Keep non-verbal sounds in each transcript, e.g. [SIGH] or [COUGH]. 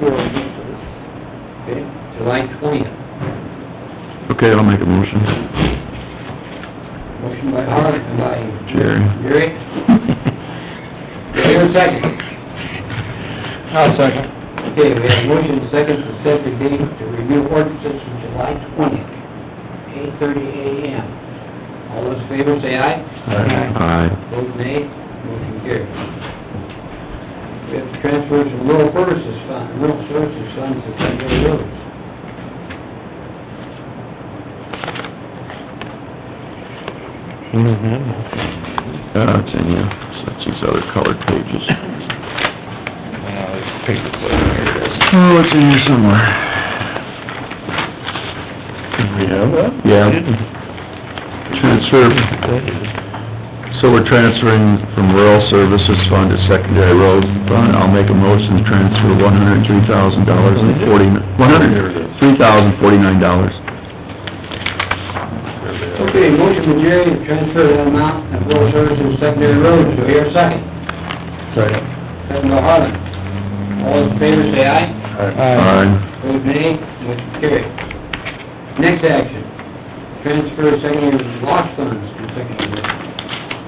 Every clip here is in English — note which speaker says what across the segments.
Speaker 1: four weeks. Okay, July twentieth.
Speaker 2: Okay, I'll make a motion.
Speaker 1: Motion by Hart, and by
Speaker 2: Jerry.
Speaker 1: [LAUGHS] Gary. Do I hear a second?
Speaker 2: I'll second.
Speaker 1: Okay, we have motion second to set the date to review ordinances from July twentieth, eight thirty AM. All those in favor, say aye.
Speaker 2: Aye.
Speaker 1: Vote nay, motion carries. We have transfers from rural services fund, rural services funds to secondary roads.
Speaker 2: Uh, it's in here, so that's these other colored pages. Oh, it's in here somewhere. we have that? Yeah. Transfer, so we're transferring from rural services fund to secondary road fund. I'll make a motion to transfer one hundred and three thousand dollars and forty, one hundred, three thousand forty-nine dollars.
Speaker 1: Okay, motion by Jerry to transfer that amount of rural services to secondary roads, do I hear a second?
Speaker 2: Second.
Speaker 1: Second by Harland. All those in favor, say aye.
Speaker 2: Aye.
Speaker 1: Vote nay, motion carried. Next action, transfer secondary loss funds to secondary roads.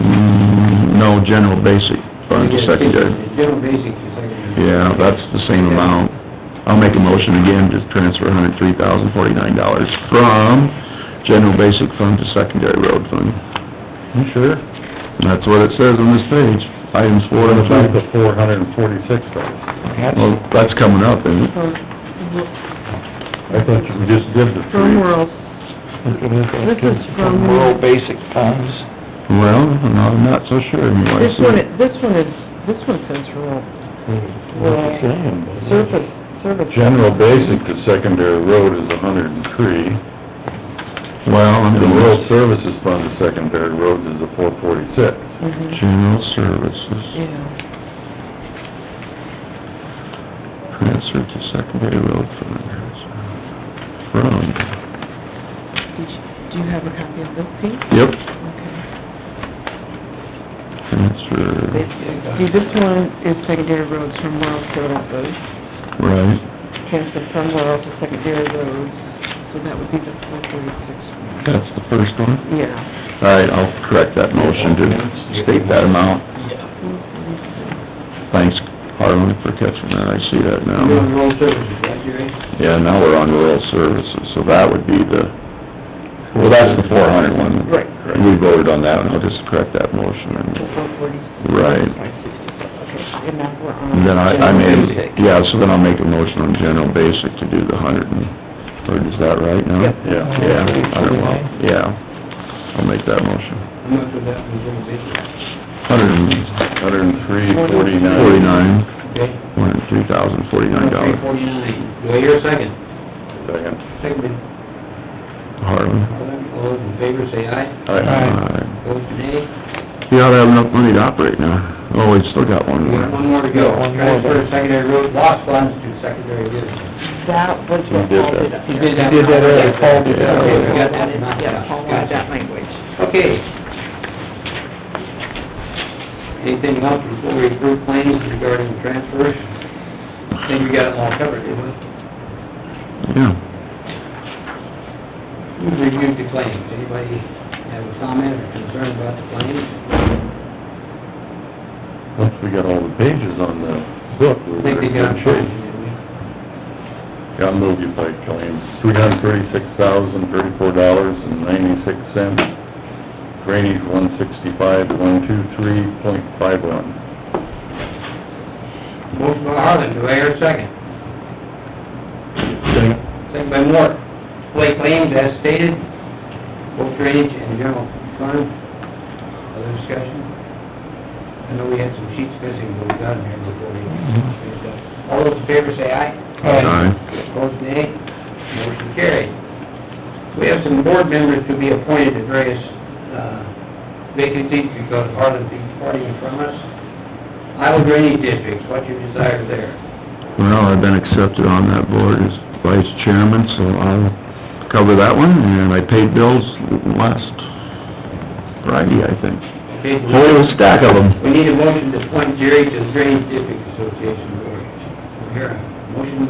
Speaker 2: Mm, no, general basic fund to secondary.
Speaker 1: General basic to secondary.
Speaker 2: Yeah, that's the same amount. I'll make a motion again to transfer hundred three thousand forty-nine dollars from general basic fund to secondary road fund.
Speaker 3: You sure?
Speaker 2: That's what it says on this page, items four and
Speaker 3: That's
Speaker 2: five.
Speaker 3: the four hundred and forty-six dollars.
Speaker 2: Well, that's coming up, isn't it?
Speaker 4: From
Speaker 3: I thought we just did the three.
Speaker 4: rural, this is from,
Speaker 5: basic funds.
Speaker 2: Well, I'm not so sure anyway.
Speaker 4: this one, this one is, this one says rural,
Speaker 3: Hmm. What's it saying?
Speaker 4: surface, service.
Speaker 3: General basic to secondary road is a hundred and three.
Speaker 2: Well, I'm
Speaker 3: And the
Speaker 2: going
Speaker 3: rural services fund to secondary roads is a four forty-six.
Speaker 4: Mhm,
Speaker 2: general services,
Speaker 4: Yeah,
Speaker 2: transfer to secondary road fund. From,
Speaker 4: did you, do you have a copy of this piece?
Speaker 2: yep,
Speaker 4: Okay.
Speaker 2: transfer.
Speaker 4: See, this one is secondary roads from rural services,
Speaker 2: Right,
Speaker 4: transfer from rural to secondary roads, so that would be the four forty-six one.
Speaker 2: that's the first one.
Speaker 4: Yeah.
Speaker 2: All right, I'll correct that motion to state that amount. Thanks, Harlan, for catching that, I see that
Speaker 1: You're doing
Speaker 2: now.
Speaker 1: rural services, right, Jerry?
Speaker 2: Yeah, now we're on rural services, so that would be the, well, that's the four hundred one.
Speaker 4: Right.
Speaker 2: We voted on that, and I'll just correct that motion.
Speaker 4: The
Speaker 2: and-
Speaker 4: four forty.
Speaker 2: Right.
Speaker 4: Okay, and now we're on.
Speaker 2: And then I, I made, yeah, so then I'll make a motion on general basic to do the hundred and, or is that right now?
Speaker 4: Yep.
Speaker 3: Yeah.
Speaker 2: Yeah, I don't know, yeah, I'll make that motion.
Speaker 1: How much was that from general basic?
Speaker 2: Hundred and
Speaker 3: Hundred and three forty-nine.
Speaker 2: forty-nine.
Speaker 1: Okay?
Speaker 2: One hundred three thousand forty-nine
Speaker 1: Three
Speaker 2: dollars.
Speaker 1: forty-nine. Do I hear a second?
Speaker 3: Second.
Speaker 1: Second by
Speaker 2: Harlan.
Speaker 1: All those in favor, say aye.
Speaker 2: Aye.
Speaker 1: Vote nay.
Speaker 2: You ought to have enough money to operate now. Oh, we still got one
Speaker 1: We have
Speaker 2: more.
Speaker 1: one more to go.
Speaker 5: Yeah, one more.
Speaker 1: Transfer of secondary road, lost funds to secondary roads.
Speaker 4: That was what
Speaker 2: did
Speaker 4: Paul
Speaker 2: that.
Speaker 4: did up there.
Speaker 1: did that.
Speaker 5: Did that earlier, Paul did that
Speaker 1: Okay, we
Speaker 5: earlier.
Speaker 1: got that, knocked out.
Speaker 4: Yeah, Paul got that language.
Speaker 1: Okay. Anything else before we approve claims regarding the transfers? I think we got it all covered, didn't we?
Speaker 2: Yeah.
Speaker 1: Who reviewed the claims? Anybody have a comment or concern about the claims?
Speaker 3: Once we got all the pages on the book,
Speaker 1: I
Speaker 3: we're
Speaker 1: think they
Speaker 3: in
Speaker 1: got
Speaker 3: good
Speaker 1: a
Speaker 3: shape.
Speaker 1: claim, didn't we?
Speaker 3: Got moved by claims, three hundred thirty-six thousand, thirty-four dollars and ninety-six cents. Drainage, one sixty-five, one two three point five one.
Speaker 1: Motion by Harland, do I hear a second? Second by Moore. Lay claims as stated, both drainage and general fund. Other discussion? I know we had some sheets missing, but we got them here before we... All those in favor say aye.
Speaker 2: Aye.
Speaker 1: Opposed, nay. Motion carried. We have some board members to be appointed to various uh, vacancies because Harland is departing from us. Iowa Drainage District, what's your desire there?
Speaker 2: Well, I've been accepted on that board as vice chairman, so I'll cover that one, and I paid bills last Friday, I think.
Speaker 1: Okay, do we-
Speaker 2: Whole stack of them.
Speaker 1: We need a motion to appoint Jerry to the Drainage District Association Board. Here, Motion